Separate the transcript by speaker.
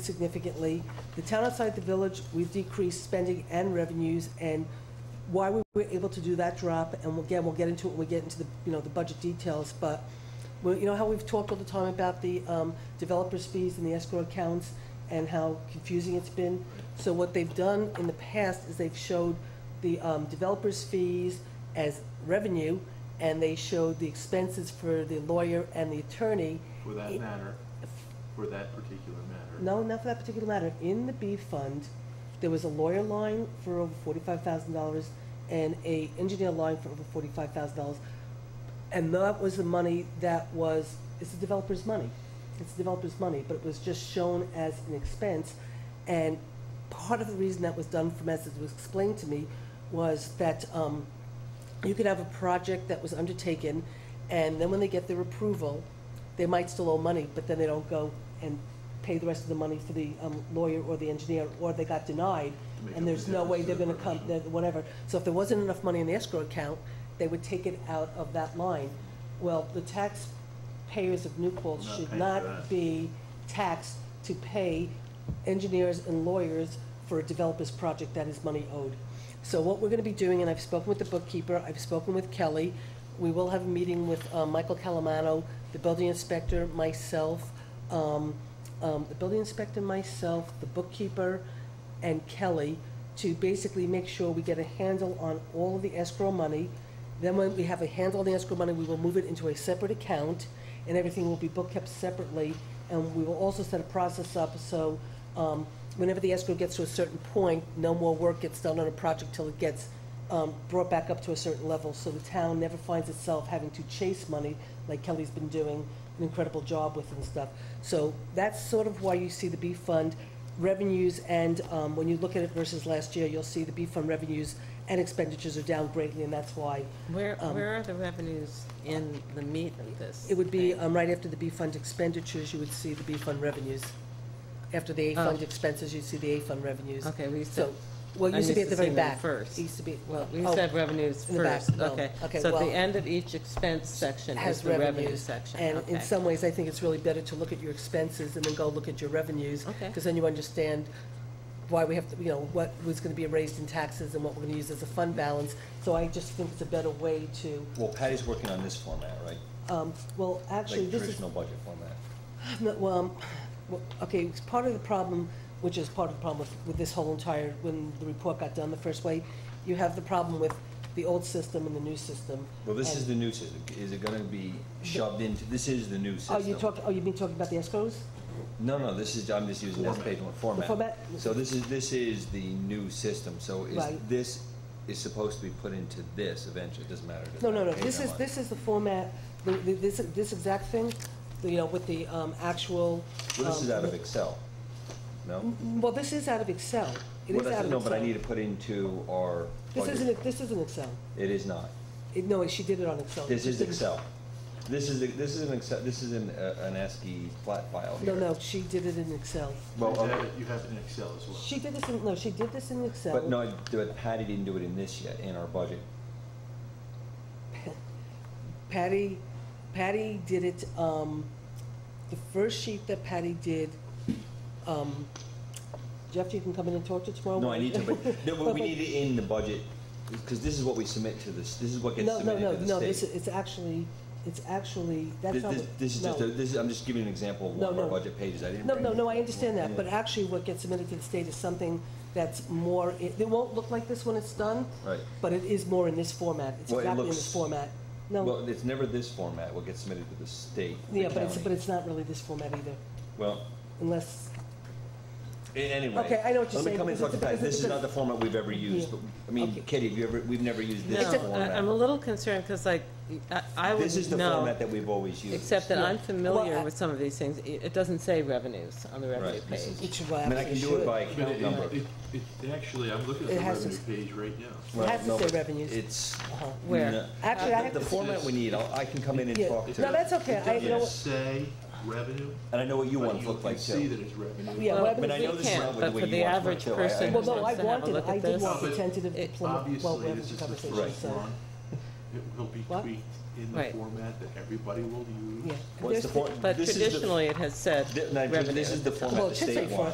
Speaker 1: significantly. The town outside the village, we've decreased spending and revenues, and why we were able to do that drop, and we'll- again, we'll get into it when we get into the, you know, the budget details, but, well, you know how we've talked all the time about the um, developers' fees and the escrow accounts, and how confusing it's been? So what they've done in the past is they've showed the um, developers' fees as revenue, and they showed the expenses for the lawyer and the attorney.
Speaker 2: For that
Speaker 1: It-
Speaker 2: matter, for that particular matter.
Speaker 1: No, not for that particular matter. In the B fund, there was a lawyer line for over forty-five thousand dollars and a engineer line for over forty-five thousand dollars. And that was the money that was, it's the developer's money. It's the developer's money, but it was just shown as an expense. And part of the reason that was done from, as it was explained to me, was that, um, you could have a project that was undertaken, and then when they get their approval, they might still owe money, but then they don't go and pay the rest of the money for the um, lawyer or the engineer, or they got denied,
Speaker 2: To make up
Speaker 1: and there's
Speaker 2: the
Speaker 1: no way they're gonna
Speaker 2: difference to the
Speaker 1: come,
Speaker 2: provision.
Speaker 1: that- whatever. So if there wasn't enough money in the escrow account, they would take it out of that line. Well, the taxpayers of New Paltz
Speaker 2: Not
Speaker 1: should
Speaker 2: paying for
Speaker 1: not
Speaker 2: that.
Speaker 1: be taxed to pay engineers and lawyers for a developer's project that is money owed. So what we're gonna be doing, and I've spoken with the bookkeeper, I've spoken with Kelly, we will have a meeting with, uh, Michael Calamano, the building inspector, myself, um, um, the building inspector, myself, the bookkeeper, and Kelly, to basically make sure we get a handle on all of the escrow money. Then when we have a handle on the escrow money, we will move it into a separate account, and everything will be book kept separately. And we will also set a process up, so um, whenever the escrow gets to a certain point, no more work gets done on a project till it gets um, brought back up to a certain level, so the town never finds itself having to chase money like Kelly's been doing an incredible job with and stuff. So that's sort of why you see the B fund revenues and, um, when you look at it versus last year, you'll see the B fund revenues and expenditures are down greatly, and that's why
Speaker 3: Where,
Speaker 1: Um,
Speaker 3: where are the revenues in the meat of this?
Speaker 1: it would be,
Speaker 3: thing?
Speaker 1: um, right after the B fund expenditures, you would see the B fund revenues. After the A
Speaker 3: Oh.
Speaker 1: fund expenses, you'd see the A fund revenues.
Speaker 3: Okay, we used
Speaker 1: So,
Speaker 3: to,
Speaker 1: well, it
Speaker 3: I
Speaker 1: used to be at
Speaker 3: used
Speaker 1: the
Speaker 3: to
Speaker 1: very
Speaker 3: see them
Speaker 1: back.
Speaker 3: first.
Speaker 1: It used to be,
Speaker 3: well,
Speaker 1: well,
Speaker 3: we used
Speaker 1: oh,
Speaker 3: to have revenues
Speaker 1: in the back,
Speaker 3: first,
Speaker 1: no.
Speaker 3: okay.
Speaker 1: Okay,
Speaker 3: So at
Speaker 1: well-
Speaker 3: the end of each expense section is
Speaker 1: has
Speaker 3: the revenue
Speaker 1: revenues.
Speaker 3: section,
Speaker 1: And in
Speaker 3: okay.
Speaker 1: some ways, I think it's really better to look at your expenses and then go look at your revenues.
Speaker 3: Okay.
Speaker 1: Because then you understand why we have, to, you know, what was going to be raised in taxes and what we're going to use as a fund balance. So I just think it's a better way to,
Speaker 4: Well, Patty's working on this format, right?
Speaker 1: um, well, actually,
Speaker 4: Like
Speaker 1: this is,
Speaker 4: traditional budget format.
Speaker 1: no, well, um, well, okay, it's part of the problem, which is part of the problem with, with this whole entire, when the report got done the first way, you have the problem with the old system and the new system.
Speaker 4: Well, this
Speaker 1: And-
Speaker 4: is the new system. Is it gonna be shoved into, this is the new system.
Speaker 1: Oh, you talk, oh, you mean talking about the escrows?
Speaker 4: No, no, this is, I'm just using this
Speaker 2: Format.
Speaker 4: page one
Speaker 1: The format?
Speaker 4: format. So this is, this is the new system, so is,
Speaker 1: Right.
Speaker 4: this is supposed to be put into this eventually, it doesn't matter. it doesn't
Speaker 1: No, no, no,
Speaker 4: matter page
Speaker 1: this is,
Speaker 4: number.
Speaker 1: this is the format, the- the- this, this exact thing, you know, with the um, actual.
Speaker 4: Well, this
Speaker 1: um,
Speaker 4: is out of Excel, no?
Speaker 1: Well, this is out of Excel. It
Speaker 4: Well,
Speaker 1: is
Speaker 4: that's-
Speaker 1: out of Excel.
Speaker 4: No, but I need to put into our
Speaker 1: This
Speaker 4: budget.
Speaker 1: isn't, this isn't Excel.
Speaker 4: It is not.
Speaker 1: It- No, she did it on Excel.
Speaker 4: This
Speaker 1: She
Speaker 4: is
Speaker 1: didn't-
Speaker 4: Excel. This is, this is an Excel, this is an, uh, an ASCII flat file here.
Speaker 1: No, no, she did it in Excel.
Speaker 4: Well,
Speaker 2: You have
Speaker 4: okay.
Speaker 2: it- You have it in Excel as well.
Speaker 1: She did this in, no, she did this in Excel.
Speaker 4: But no, but Patty didn't do it in this yet, in our budget.
Speaker 1: Patty, Patty did it, um, the first sheet that Patty did, um, Jeff, you can come in and talk to tomorrow.
Speaker 4: No, I need to, but, no, but
Speaker 1: But-
Speaker 4: we
Speaker 1: but-
Speaker 4: need it in the budget, because this is what we submit to this, this is what gets
Speaker 1: No, no,
Speaker 4: submitted
Speaker 1: no,
Speaker 4: to the state.
Speaker 1: no, this, is- it's actually, it's actually, that's
Speaker 4: This,
Speaker 1: not.
Speaker 4: this-
Speaker 1: what-
Speaker 4: this is just,
Speaker 1: no.
Speaker 4: a- this is, I'm just giving an example of
Speaker 1: No,
Speaker 4: one of our
Speaker 1: no.
Speaker 4: budget pages, I didn't
Speaker 1: No,
Speaker 4: bring
Speaker 1: no,
Speaker 4: it.
Speaker 1: no, I understand that,
Speaker 4: Yeah.
Speaker 1: but actually what gets submitted to the state is something that's more, it it won't look like this when it's done,
Speaker 4: Right,
Speaker 1: but it is more in this format. It's
Speaker 4: Well, it
Speaker 1: exactly in this
Speaker 4: looks-
Speaker 1: format. No,
Speaker 4: well, it's never this format, what gets submitted to the state, the
Speaker 1: yeah, but it's, but
Speaker 4: county.
Speaker 1: it's not really this format either,
Speaker 4: Well,
Speaker 1: unless,
Speaker 4: a- anyway.
Speaker 1: Okay, I know what you're saying,
Speaker 4: Let me come in and
Speaker 1: because
Speaker 4: talk
Speaker 1: it's
Speaker 4: to
Speaker 1: a-
Speaker 4: Patty,
Speaker 1: because
Speaker 4: this
Speaker 1: it's
Speaker 4: is
Speaker 1: a-
Speaker 4: not the format we've ever used,
Speaker 1: Yeah.
Speaker 4: but, I mean,
Speaker 1: Okay.
Speaker 4: Kitty, have you ever, we've never used this
Speaker 1: Except-
Speaker 3: No, I- I'm a
Speaker 4: format.
Speaker 3: little concerned, because like, I- I
Speaker 4: This is
Speaker 3: would
Speaker 4: the
Speaker 3: know,
Speaker 4: format that we've always used.
Speaker 3: except that I'm
Speaker 1: Well,
Speaker 3: familiar
Speaker 1: I-
Speaker 3: with some of these things. It it doesn't say revenues on the revenue
Speaker 4: Right, this
Speaker 3: page.
Speaker 1: which is
Speaker 4: I mean, I can do it by
Speaker 2: But
Speaker 4: account
Speaker 2: it-
Speaker 4: number.
Speaker 2: it- it- it- Actually, I'm looking
Speaker 1: It
Speaker 2: at the
Speaker 1: has to
Speaker 2: revenue page right now.
Speaker 1: It has
Speaker 4: Right,
Speaker 1: to
Speaker 4: no,
Speaker 1: say
Speaker 4: but
Speaker 1: revenues.
Speaker 4: It's.
Speaker 1: Uh-huh.
Speaker 3: Where?
Speaker 4: No.
Speaker 1: Actually, I have
Speaker 4: The
Speaker 1: to,
Speaker 4: format we need, I'll- I can come in and
Speaker 1: Yeah.
Speaker 4: talk
Speaker 2: It
Speaker 4: to,
Speaker 1: No,
Speaker 4: and
Speaker 1: that's
Speaker 2: does-
Speaker 1: okay. I-
Speaker 2: It
Speaker 1: you know
Speaker 2: doesn't
Speaker 1: what-
Speaker 2: say revenue,
Speaker 4: I know what you
Speaker 2: but
Speaker 4: want
Speaker 2: you
Speaker 4: to look
Speaker 2: can
Speaker 4: like
Speaker 2: see
Speaker 4: too.
Speaker 2: that it's
Speaker 1: Yeah,
Speaker 2: revenue.
Speaker 3: Well,
Speaker 1: whatever
Speaker 4: I mean, I
Speaker 3: we
Speaker 4: know this is
Speaker 3: can't,
Speaker 4: not with
Speaker 3: but
Speaker 4: the way
Speaker 3: for
Speaker 4: you
Speaker 3: the
Speaker 4: watch my
Speaker 3: average
Speaker 4: show, I- I
Speaker 3: person
Speaker 1: well, no, I
Speaker 3: wants to have a
Speaker 1: wanted,
Speaker 3: look
Speaker 1: I
Speaker 3: at
Speaker 1: did
Speaker 3: this.
Speaker 2: No,
Speaker 1: want the
Speaker 2: but
Speaker 1: tentative
Speaker 3: it-
Speaker 1: deployment, well, we
Speaker 2: Obviously,
Speaker 1: have
Speaker 2: this
Speaker 1: the
Speaker 2: is the
Speaker 1: conversation,
Speaker 4: Right.
Speaker 2: first
Speaker 1: so,
Speaker 2: one. It will be
Speaker 1: What?
Speaker 2: tweaked in the
Speaker 3: Right.
Speaker 2: format that everybody will
Speaker 1: yeah.
Speaker 2: use.
Speaker 4: What's
Speaker 1: There's
Speaker 4: the
Speaker 1: the-
Speaker 4: for-
Speaker 3: But
Speaker 4: this is the-
Speaker 3: traditionally, it has said
Speaker 4: Th- no,
Speaker 3: revenue.
Speaker 4: This is the
Speaker 1: Well,
Speaker 4: format
Speaker 1: it
Speaker 4: the
Speaker 1: should say
Speaker 4: state
Speaker 1: for-
Speaker 4: wants.